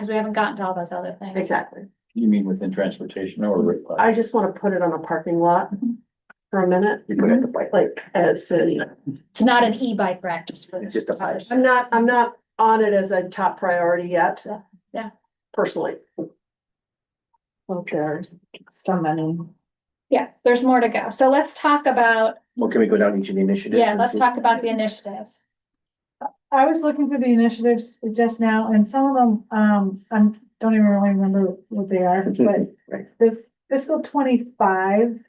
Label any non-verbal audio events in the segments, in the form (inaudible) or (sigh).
Cause we haven't gotten to all those other things. Exactly. You mean within transportation or? I just wanna put it on a parking lot for a minute, Mhm. You put it at the bike. like, as in, It's not an e-bike practice for. It's just a bike. I'm not, I'm not on it as a top priority yet. Yeah. Personally. Okay, still many. Yeah, there's more to go. So let's talk about, Well, can we go down each of the initiatives? yeah, let's talk (laughs) about the initiatives. I was looking through the initiatives just now and some of them, um, I'm, don't even really remember what they are, but Right. the fiscal twenty-five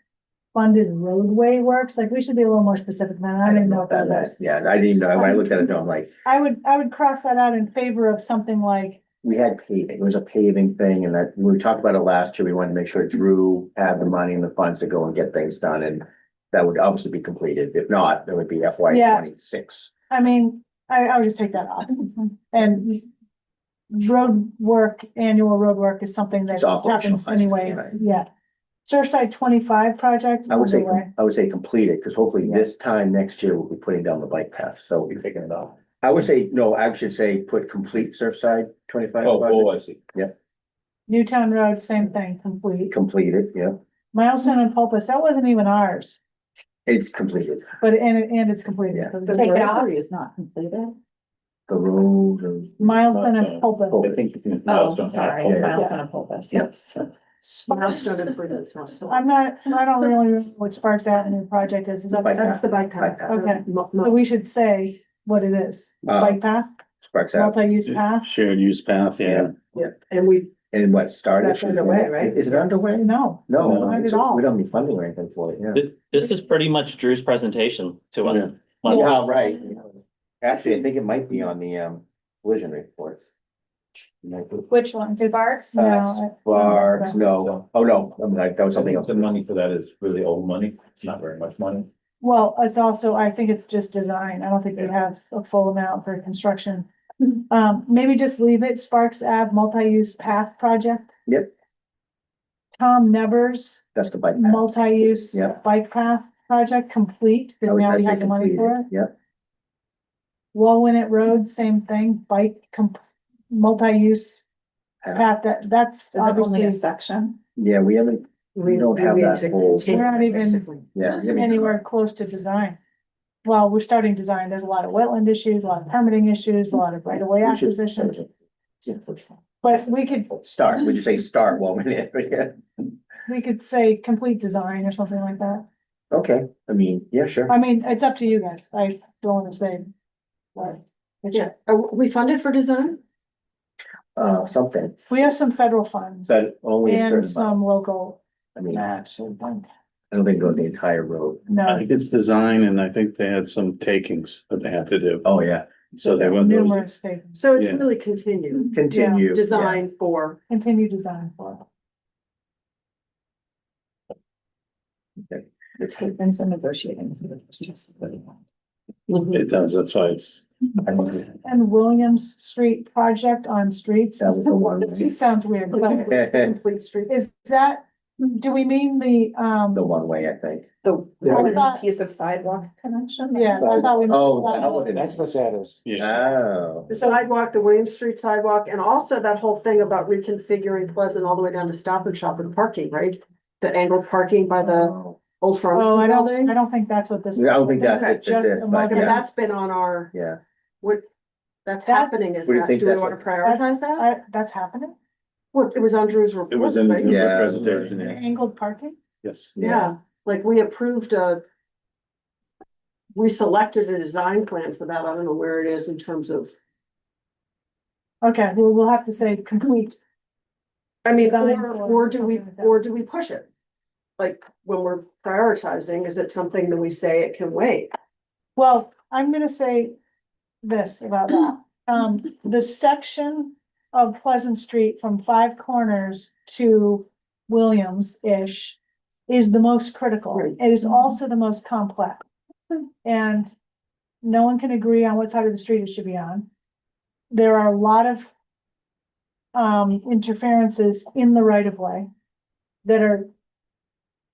funded roadway works, like we should be a little more specific than that. I didn't know what that was. Yeah, I didn't know, when I looked at it, though, I'm like, I would, I would cross that out in favor of something like, we had paving, it was a paving thing and that, we talked about it last year, we wanted to make sure Drew had the money and the funds to go and get things done and. That would obviously be completed, if not, there would be FY Yeah. twenty-six. I mean, I, I would just take that (laughs) off. And road work, annual road work is something that It's operational, happens I see, anyway, right. yeah. Surfside twenty-five project. I would say, underway. I would say completed, because hopefully this time next year, we'll be putting down the bike path, so we'll be taking it off. I would say, no, I should say put complete Surfside twenty-five. Oh, project. oh, I see. Newtown Road, same thing, complete. Completed, yeah, Milestone and Pulpus, that wasn't even ours, it's completed, but and it- and it's completed. Yeah. So The take it off. rotary is not completed. the road and. Milestone and Pulpus. I think. you Oh, sorry, Yeah, yeah. Milestone and Pulpus, yes. Milestone improvements, milestone. (laughs) I'm not, I don't really remember what Sparks Avenue project is, is that, Bike so That's the bike path. Bike path. Okay. we should say what it is. Uh, Bike path, Sparks out, multi-use path, Shared use path, yeah. Yeah, and we, and what started? That's underway, right? Is it underway? no, No, Not at it's- all. we don't need funding or anything for it, yeah. This, this is pretty much Drew's presentation to us. Well, Yeah, right. Actually, I think it might be on the um collision report. Which ones? Barks? No, Uh, I- Sparks, no, oh, no, I'm like, that was something else. The money for that is really old money, it's not very much money. well, it's also, I think it's just design, I don't think we have a full amount for construction. Um, maybe just leave it Sparks Ave multi-use path project. Yep. Tom Nevers. That's the bike path. multi-use Yeah. bike path project complete, I because would- now I'd we say have the money for it. completed, Yep, Walwinet Road, same thing, bike com- multi-use Yeah. path, that, that's Is it only obviously, a section? yeah, we haven't, we We don't have we that take- whole- take- We're not even- basically. yeah. we haven't- anywhere close to design. Well, we're starting design, there's a lot of wetland issues, a lot of permitting issues, a lot of right-of-way we should- acquisition, but we could, Start, would you say start while we're (laughs) there? we could say complete design or something like that. Okay, I mean, yeah, sure. I mean, it's up to you guys, I don't wanna say. what. Yeah, are we funded for design? Uh, something. We have some federal funds But only a and certain amount, some local, I mean, I Nah, so one. don't think go the entire road. no, I think it's design and I think they had some takings that they had to do. Oh, yeah. So they went those, numerous things. So it's Yeah. really continued Continue. yeah. design for continue design for. It's been some negotiating. for the first time, so really want. Mm-hmm. it does, that's why it's. I don't- And Williams Street project on streets. That was the one, It right? just sounds weird, but (laughs) complete street. is that, do we mean the, um, (laughs) The one way, I think. The Yeah. one piece of sidewalk connection? yeah, I thought we. meant that. That's what Oh, that is. Yeah. Oh. The sidewalk, the Williams Street sidewalk, and also that whole thing about reconfiguring Pleasant all the way down to Stop and Shop and parking, right? The angled parking by the old farm. Oh, I don't, I don't think that's what this. Yeah, I don't think that's it, Just this, a but market- yeah. that's been on our, Yeah, what, that's That- happening is What do you that, think do we that's wanna like? prioritize that? I- That's happening, What, it was on Drew's report. It was in right? Yeah. the presentation, angled parking, yes. Yeah, like we approved a. We selected a design plan for that, I don't know where it is in terms of, okay, well, we'll have to say complete, I mean, Design or, or or do we, something like that. or do we push it? Like, when we're prioritizing, is it something that we say it can wait? well, I'm gonna say this about that. Um, the section of Pleasant Street from Five Corners to Williams-ish is the most critical. Right. It is also the most complex. And no one can agree on what side of the street it should be on. There are a lot of um, interferences in the right of way that are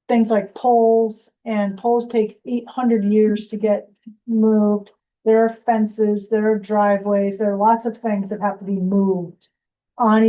things like poles and poles take eight hundred years to get moved. There are fences, there are driveways, there are lots of things that have to be moved on